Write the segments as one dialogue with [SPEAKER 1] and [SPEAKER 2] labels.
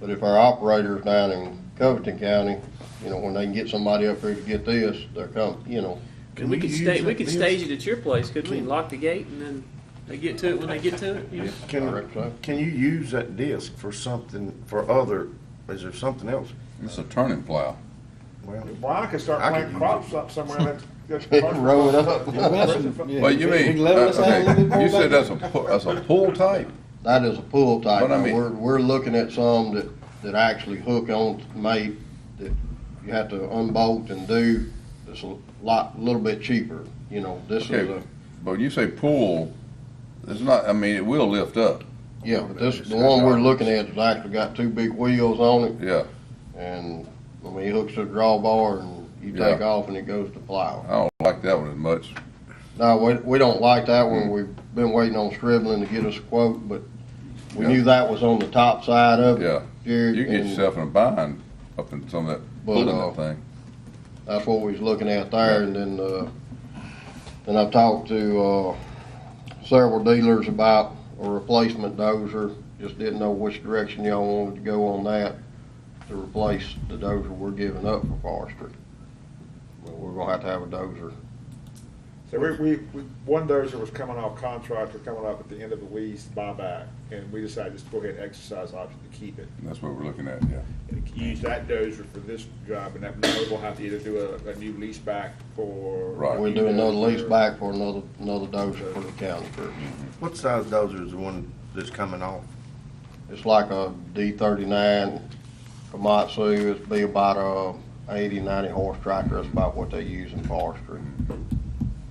[SPEAKER 1] But if our operators down in Covington County, you know, when they can get somebody up here to get this, they're come, you know,
[SPEAKER 2] And we could
[SPEAKER 3] use
[SPEAKER 2] sta- we
[SPEAKER 3] that
[SPEAKER 2] could
[SPEAKER 3] bill?
[SPEAKER 2] stage it at your place, couldn't we? And lock the gate and then they get to it when they get to it?
[SPEAKER 1] yeah, I
[SPEAKER 3] Can,
[SPEAKER 1] reckon so.
[SPEAKER 3] can you use that disc for something, for other, is there something else?
[SPEAKER 4] It's a turning plow.
[SPEAKER 3] Well,
[SPEAKER 5] Well, I could start
[SPEAKER 3] I
[SPEAKER 5] planting
[SPEAKER 3] could
[SPEAKER 5] crops up somewhere and that's.
[SPEAKER 1] Roll it up.
[SPEAKER 4] Well, you mean, uh, okay, you said that's a, pu- that's a pull type?
[SPEAKER 1] That is a pull type.
[SPEAKER 4] But I
[SPEAKER 1] Now,
[SPEAKER 4] mean-
[SPEAKER 1] We're, we're looking at some that, that actually hook on to mate, that you have to unbolt and do. It's a lot, little bit cheaper, you know, this is
[SPEAKER 4] Okay.
[SPEAKER 1] a,
[SPEAKER 4] But when you say pull, it's not, I mean, it will lift up,
[SPEAKER 1] yeah, but this, the one we're looking at has actually got two big wheels on it.
[SPEAKER 4] yeah.
[SPEAKER 1] And, I mean, it hooks to the drawbar and you take
[SPEAKER 4] Yeah.
[SPEAKER 1] off and it goes to plow.
[SPEAKER 4] I don't like that one as much.
[SPEAKER 1] No, we, we don't like that
[SPEAKER 4] Hmm.
[SPEAKER 1] one. We've been waiting on Scribbling to get us a quote, but we
[SPEAKER 4] Yeah.
[SPEAKER 1] knew that was on the top side of it.
[SPEAKER 4] Yeah.
[SPEAKER 1] Jared,
[SPEAKER 4] You get
[SPEAKER 1] and-
[SPEAKER 4] yourself in a bind up in some of that,
[SPEAKER 1] Well,
[SPEAKER 4] pulling
[SPEAKER 1] uh,
[SPEAKER 4] that thing.
[SPEAKER 1] That's what we was looking at there, and then, uh, and I've talked to, uh, several dealers about a replacement dozer. Just didn't know which direction y'all wanted to go on that to replace the dozer we're giving up for forestry. But we're gonna have to have a dozer.
[SPEAKER 5] So we, we, we, one dozer was coming off contract, or coming up at the end of the lease buyback, and we decided just to go ahead and exercise the option to keep it.
[SPEAKER 4] That's what we're looking at, yeah.
[SPEAKER 5] And use that dozer for this job, and that, now we'll have to either do a, a new lease back for.
[SPEAKER 4] Right.
[SPEAKER 1] We'll do another lease back for another, another dozer for the county crew.
[SPEAKER 3] what size dozer is the one that's coming off?
[SPEAKER 1] It's like a D thirty-nine Komatsu, it'd be about a 80, 90 horse tractor, that's about what they use in forestry.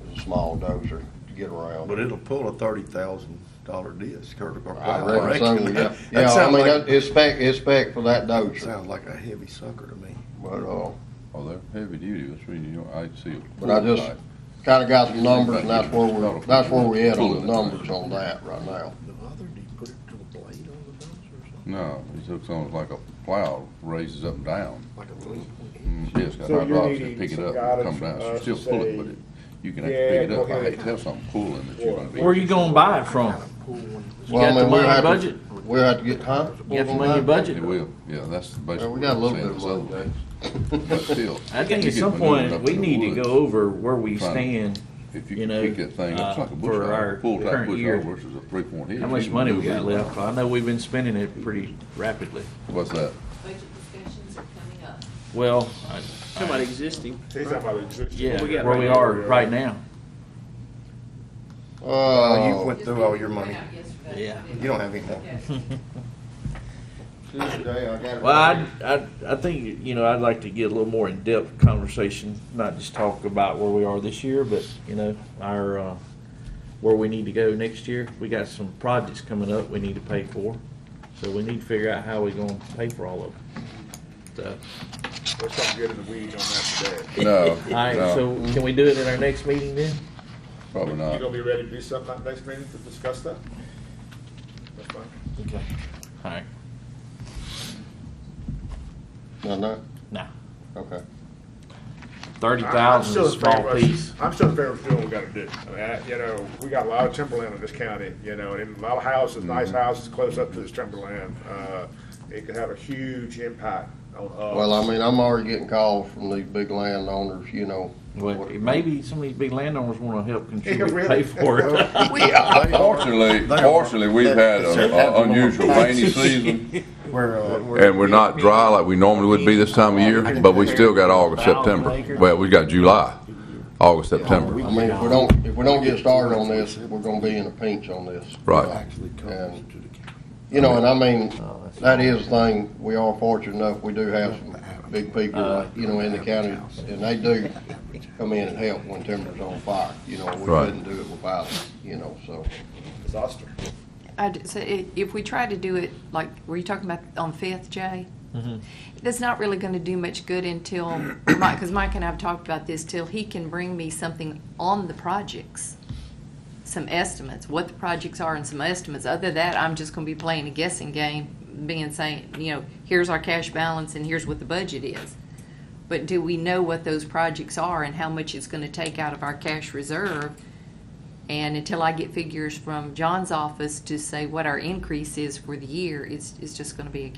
[SPEAKER 1] It's a small dozer to get around.
[SPEAKER 3] But it'll pull a thirty thousand dollar disc, or. or-
[SPEAKER 1] I reckon so, yeah.
[SPEAKER 3] that- that
[SPEAKER 1] Yeah, I
[SPEAKER 3] sound
[SPEAKER 1] mean,
[SPEAKER 3] like-
[SPEAKER 1] that- it's spec, it's spec for that
[SPEAKER 3] that
[SPEAKER 1] dozer,
[SPEAKER 3] Sounds like a heavy sucker to me.
[SPEAKER 1] but, uh,
[SPEAKER 4] Oh, they're heavy duty, that's really, you know, I see. a
[SPEAKER 1] but I
[SPEAKER 4] pull
[SPEAKER 1] just
[SPEAKER 4] type.
[SPEAKER 1] kinda got some numbers and that's where
[SPEAKER 4] Not
[SPEAKER 1] we're,
[SPEAKER 4] a-
[SPEAKER 1] that's where we at on the
[SPEAKER 4] Pulling it.
[SPEAKER 1] numbers on that right now.
[SPEAKER 3] The other, do you put it to the blade on the dozer or something?
[SPEAKER 4] No, it looks almost like a plow raises up and down.
[SPEAKER 3] Like a lead?
[SPEAKER 4] Mm, Yes, got
[SPEAKER 5] So you're
[SPEAKER 4] hydraulics that
[SPEAKER 5] needing
[SPEAKER 4] pick it
[SPEAKER 5] some
[SPEAKER 4] up and
[SPEAKER 5] guidance
[SPEAKER 4] come down,
[SPEAKER 5] from
[SPEAKER 4] so
[SPEAKER 5] us
[SPEAKER 4] still
[SPEAKER 5] to
[SPEAKER 4] pull it,
[SPEAKER 5] say,
[SPEAKER 4] but it, you can actually pick it
[SPEAKER 5] yeah,
[SPEAKER 4] up.
[SPEAKER 5] go
[SPEAKER 4] I hate
[SPEAKER 5] ahead.
[SPEAKER 4] to have something pulling that you're gonna be.
[SPEAKER 6] Where you gonna buy it from? You
[SPEAKER 1] Well, I mean,
[SPEAKER 6] got the
[SPEAKER 1] we'll
[SPEAKER 6] money in
[SPEAKER 1] have to-
[SPEAKER 6] budget?
[SPEAKER 1] We'll have to get, huh?
[SPEAKER 6] You got the money in budget?
[SPEAKER 4] It will, yeah, that's basically.
[SPEAKER 1] Well, we got a
[SPEAKER 4] what
[SPEAKER 1] little
[SPEAKER 4] I'm
[SPEAKER 1] bit of money,
[SPEAKER 4] saying, it's other things. But still.
[SPEAKER 6] I think
[SPEAKER 4] you
[SPEAKER 6] at
[SPEAKER 4] get
[SPEAKER 6] some
[SPEAKER 4] maneuvering
[SPEAKER 6] point,
[SPEAKER 4] up
[SPEAKER 6] we
[SPEAKER 4] in the
[SPEAKER 6] need to
[SPEAKER 4] woods.
[SPEAKER 6] go over where we
[SPEAKER 4] Trying to-
[SPEAKER 6] stand,
[SPEAKER 4] If
[SPEAKER 6] you
[SPEAKER 4] you
[SPEAKER 6] know,
[SPEAKER 4] can pick that thing, it's
[SPEAKER 6] uh,
[SPEAKER 4] like a
[SPEAKER 6] for
[SPEAKER 4] bush hog,
[SPEAKER 6] our
[SPEAKER 4] a full type
[SPEAKER 6] current
[SPEAKER 4] bush
[SPEAKER 6] year.
[SPEAKER 4] hog versus a three point hit.
[SPEAKER 6] how
[SPEAKER 4] You
[SPEAKER 6] much
[SPEAKER 4] can
[SPEAKER 6] money
[SPEAKER 4] do
[SPEAKER 6] we
[SPEAKER 4] that.
[SPEAKER 6] got left. I know we've been spending it pretty rapidly.
[SPEAKER 4] What's that?
[SPEAKER 7] Budget discussions are coming up.
[SPEAKER 6] Well, I-
[SPEAKER 2] Talking about existing.
[SPEAKER 5] He's talking about existing.
[SPEAKER 6] yeah,
[SPEAKER 2] we got
[SPEAKER 6] where
[SPEAKER 2] right
[SPEAKER 6] we
[SPEAKER 2] now.
[SPEAKER 6] are right now.
[SPEAKER 1] Uh,
[SPEAKER 3] you went
[SPEAKER 7] Just
[SPEAKER 3] through all
[SPEAKER 7] we
[SPEAKER 3] your
[SPEAKER 7] went
[SPEAKER 3] money.
[SPEAKER 7] out yesterday.
[SPEAKER 6] Yeah.
[SPEAKER 3] You don't have any more.
[SPEAKER 7] Okay.
[SPEAKER 1] Tuesday, I got it.
[SPEAKER 6] Well, I, I, I think, you know, I'd like to get a little more in-depth conversation, not just talk about where we are this year, but, you know, our, uh, where we need to go next year. We got some projects coming up we need to pay for, so we need to figure out how we gonna pay for all of them. So,
[SPEAKER 5] There's something good in the weeds on that today.
[SPEAKER 4] No,
[SPEAKER 6] all right,
[SPEAKER 4] no,
[SPEAKER 6] so can we do it in our next meeting then?
[SPEAKER 4] probably
[SPEAKER 5] You
[SPEAKER 4] not.
[SPEAKER 5] gonna be ready to do something at next meeting to discuss that? That's fine.
[SPEAKER 6] Okay. All right,
[SPEAKER 1] No, no,
[SPEAKER 6] now,
[SPEAKER 1] okay.
[SPEAKER 6] thirty
[SPEAKER 5] I'm- I'm
[SPEAKER 6] thousand
[SPEAKER 5] still
[SPEAKER 6] is a
[SPEAKER 5] in favor
[SPEAKER 6] small
[SPEAKER 5] of-
[SPEAKER 6] piece.
[SPEAKER 5] I'm still in favor of doing what we gotta do. I mean, I- you know, we got a lot of timberland in this county, you know, and a lot of houses,
[SPEAKER 6] Mm-hmm.
[SPEAKER 5] nice houses close up to this timberland. Uh, It could have a huge impact on us.
[SPEAKER 1] Well, I mean, I'm already getting calls from these big landowners, you know.
[SPEAKER 6] Well, maybe some of these big landowners wanna help contribute,
[SPEAKER 5] really.
[SPEAKER 6] pay for it.
[SPEAKER 4] Fortunately,
[SPEAKER 3] They are-
[SPEAKER 4] fortunately, we've had
[SPEAKER 3] It's their
[SPEAKER 4] an
[SPEAKER 3] type of
[SPEAKER 4] unusual
[SPEAKER 3] market.
[SPEAKER 4] rainy season,
[SPEAKER 3] Where, uh, where-
[SPEAKER 4] and we're not dry like we normally would be this time of year, but we still got August, September. Well, we got July, August, September,
[SPEAKER 1] I mean, if we don't, if we don't get started on this, we're gonna be in a pinch on this.
[SPEAKER 4] right.
[SPEAKER 3] Actually comes to the county.
[SPEAKER 1] You know, and I mean,
[SPEAKER 3] Oh, that's-
[SPEAKER 1] that is the thing, we are fortunate enough, we do have some big people, you know, in the county, and they do come in and help when timber's on fire, you know, we
[SPEAKER 4] Right.
[SPEAKER 1] couldn't do it without, them, you know, so.
[SPEAKER 5] It's Oster.
[SPEAKER 8] I d so i- if we try to do it, like, were you talking about on Fifth, Jay? That's not really gonna do much good until, Mike, cause Mike and I have talked about this, till he can bring me something on the projects. Some estimates, what the projects are and some estimates. Other than that, I'm just gonna be playing a guessing game, being saying, you know, here's our cash balance and here's what the budget is. But do we know what those projects are and how much it's gonna take out of our cash reserve? And until I get figures from John's office to say what our increase is for the year, it's, it's just gonna be a